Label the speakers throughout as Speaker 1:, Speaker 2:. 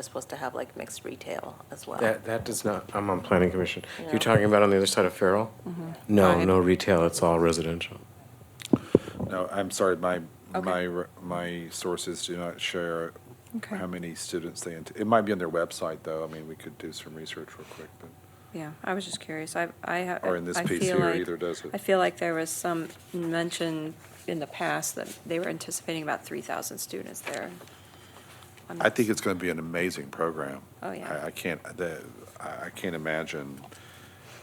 Speaker 1: We're supposed to have like mixed retail as well.
Speaker 2: That, that does not, I'm on planning commission.
Speaker 1: No.
Speaker 2: You're talking about on the other side of Farrell? No,
Speaker 3: Right.
Speaker 2: no retail, it's all residential.
Speaker 4: No, I'm sorry, my,
Speaker 3: Okay.
Speaker 4: my, re- my sources do not share
Speaker 3: Okay.
Speaker 4: how many students they, int- it might be on their website, though. I mean, we could do some research real quick, but
Speaker 3: Yeah, I was just curious. I, I. ha-
Speaker 4: Or in this
Speaker 3: I
Speaker 4: piece
Speaker 3: feel
Speaker 4: here
Speaker 3: like-
Speaker 4: either, does it?
Speaker 3: I feel like there was some mention in the past that they were anticipating about 3,000 students there. I'm
Speaker 4: I
Speaker 3: not-
Speaker 4: think it's going to be an amazing program.
Speaker 3: Oh, yeah.
Speaker 4: I, I can't, the, I, I can't imagine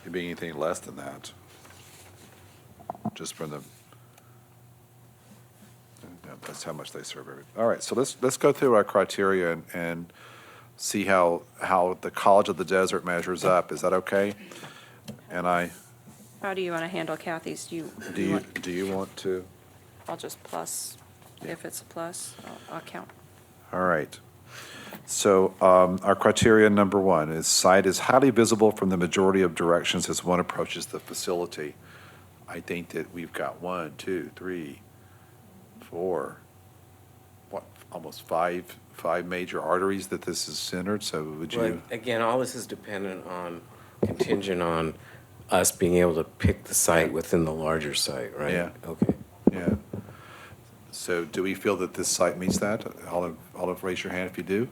Speaker 4: it being anything less than that. Just from the, yeah, that's how much they serve every, all right, so let's, let's go through our criteria and, and see how, how the College of the Desert measures up. Is that okay? And I,
Speaker 3: How do you want to handle Kathy's? Do you?
Speaker 4: Do you,
Speaker 3: want-
Speaker 4: do you want to?
Speaker 3: I'll just plus, if it's a plus, I'll- I'll count.
Speaker 4: All right. So um, our criteria number one is site is highly visible from the majority of directions as one approaches the facility. I think that we've got one, two, three, four, what, almost five, five major arteries that this is centered, so would
Speaker 2: But
Speaker 4: you?
Speaker 2: again, all this is dependent on, contingent on us being able to pick the site within the larger site, right?
Speaker 4: Yeah.
Speaker 2: Okay.
Speaker 4: Yeah. So do we feel that this site meets that? Olive, Olive, raise your hand if you do.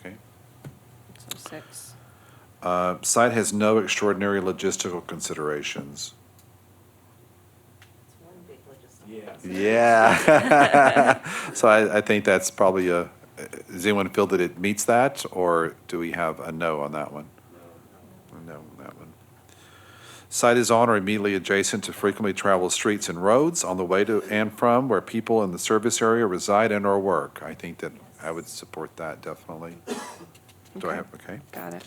Speaker 4: Okay.
Speaker 3: So six.
Speaker 4: Uh, Site has no extraordinary logistical considerations. Yeah. So I, I think that's probably a, does anyone feel that it meets that, or do we have a no on that one? A No on that one. Site is on or immediately adjacent to frequently traveled streets and roads on the way to and from where people in the service area reside and/or work. I think that I would support that definitely. Do I
Speaker 3: Okay.
Speaker 4: have, okay?
Speaker 3: Got it.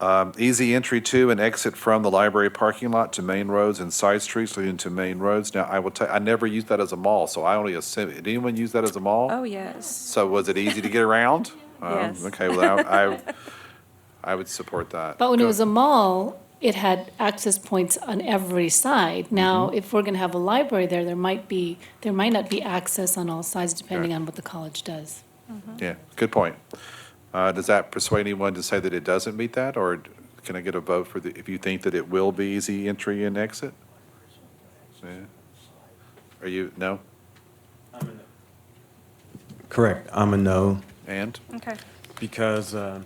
Speaker 4: Um, Easy entry to and exit from the library parking lot to main roads and side streets leading to main roads. Now, I will tell, I never used that as a mall, so I only assume, did anyone use that as a mall?
Speaker 3: Oh, yes.
Speaker 4: So was it easy to get around? Um,
Speaker 3: Yes.
Speaker 4: Okay, well, I, I- I would support that.
Speaker 5: But when it was a mall, it had access points on every side. Now, if we're going to have a library there, there might be, there might not be access on all sides depending
Speaker 4: Right.
Speaker 5: on what the college does.
Speaker 4: Yeah, good point. Uh, Does that persuade anyone to say that it doesn't meet that, or can I get a vote for the, if you think that it will be easy entry and exit? Yeah. Are you, no?
Speaker 6: Correct. I'm a no
Speaker 4: And?
Speaker 3: Okay.
Speaker 6: because uh,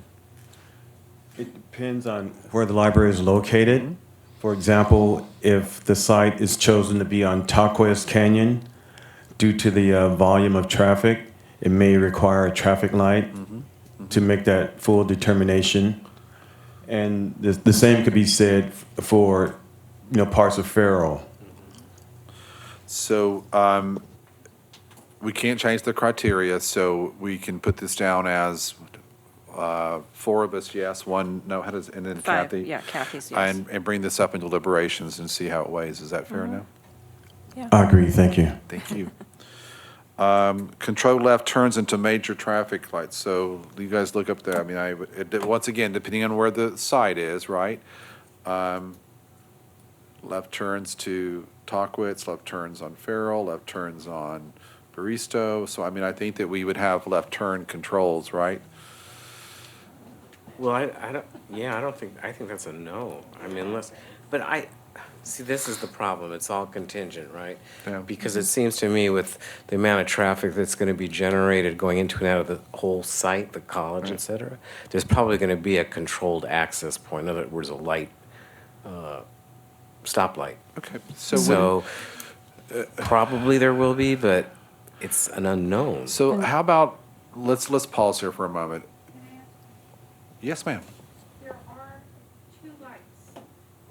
Speaker 6: it depends on Mm-hmm. where the library is located. For example, if the site is chosen to be on Taquas Canyon, due to the uh, volume of traffic, it may require a traffic light to make that full determination. And the, the same could be said f- for you know parts of Farrell.
Speaker 4: So, um, we can't change the criteria, so we can put this down as, uh, four of us, yes, one, no, how does, and then
Speaker 3: Five,
Speaker 4: Kathy?
Speaker 3: yeah, Kathy's yes.
Speaker 4: And, and bring this up in deliberations and see how it weighs. Is that
Speaker 3: Mm-hmm.
Speaker 4: fair enough?
Speaker 3: Yeah.
Speaker 6: I agree. Thank you.
Speaker 4: Thank you. Um, control left turns into major traffic lights, so you guys look up there. I mean, I, would- it, once again, depending on where the site is, right? Um, left turns to Tockwitz, left turns on Farrell, left turns on Baristo. So I mean, I think that we would have left turn controls, right?
Speaker 2: Well, I, I don't, yeah, I don't think, I think that's a no. I mean, unless, but I, see, this is the problem. It's all contingent, right?
Speaker 4: Yeah. Mm-hmm.
Speaker 2: Because it seems to me with the amount of traffic that's going to be generated going into and out of the whole site, the college, et cetera, there's probably going to be a controlled access point. In other words, a light, uh, stoplight.
Speaker 4: Okay, so when-
Speaker 2: So uh, probably there will be, but it's an unknown.
Speaker 4: so how about, let's, let's pause here for a moment. Yes, ma'am.
Speaker 7: There are two lights.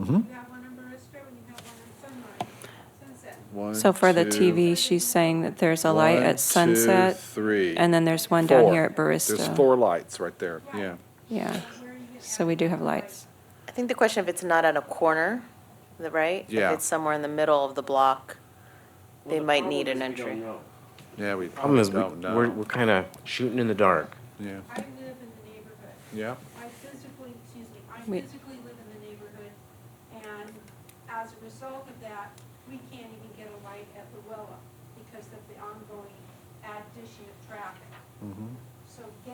Speaker 4: Mm-hmm.
Speaker 7: You have one on Barista and you have one on Sunrise, Sunset.
Speaker 4: One,
Speaker 3: So for the
Speaker 4: two,
Speaker 3: TV, she's saying that there's a light
Speaker 4: One,
Speaker 3: at
Speaker 4: two,
Speaker 3: Sunset.
Speaker 4: three,
Speaker 3: And then there's one down
Speaker 4: four.
Speaker 3: here at Barista.
Speaker 4: There's four lights right there, yeah.
Speaker 3: Yeah.
Speaker 7: Where you have
Speaker 3: So we do have lights.
Speaker 1: I think the question if it's not on a corner, the- right?
Speaker 4: Yeah.
Speaker 1: If it's somewhere in the middle of the block, they might need an entry.
Speaker 4: Yeah, we
Speaker 2: Problem
Speaker 4: probably
Speaker 2: is, we-
Speaker 4: don't
Speaker 2: we're,
Speaker 4: know.
Speaker 2: we're kind of shooting in the dark.
Speaker 4: Yeah,
Speaker 7: I live in the neighborhood.
Speaker 4: yeah.
Speaker 7: I physically, excuse me, I
Speaker 3: We-
Speaker 7: physically live in the neighborhood. And as a result of that, we can't even get a light at Luella because of the ongoing addition of traffic. So